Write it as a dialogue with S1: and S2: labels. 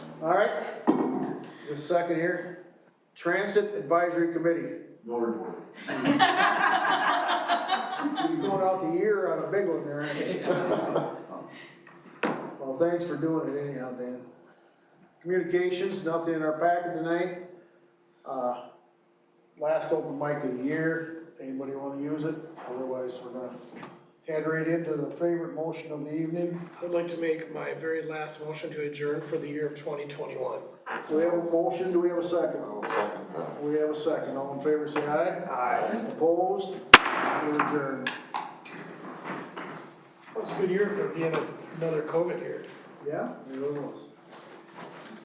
S1: All right, just a second here. Transit Advisory Committee.
S2: No report.
S1: You're going out the year on a big one there. ain't you? Well, thanks for doing it anyhow, Dan. Communications, nothing in our packet tonight. Uh, Last open mic of the year, anybody wanna use it? Otherwise, we're gonna head right into the favorite motion of the evening.
S3: I'd like to make my very last motion to adjourn for the year of twenty twenty-one.
S1: Do we have a motion, do we have a second?
S2: I'll second that.
S1: We have a second, all in favor, say aye.
S2: Aye.
S1: Opposed? We adjourn.
S3: That was a good year for being another COVID year.
S1: Yeah, it really was.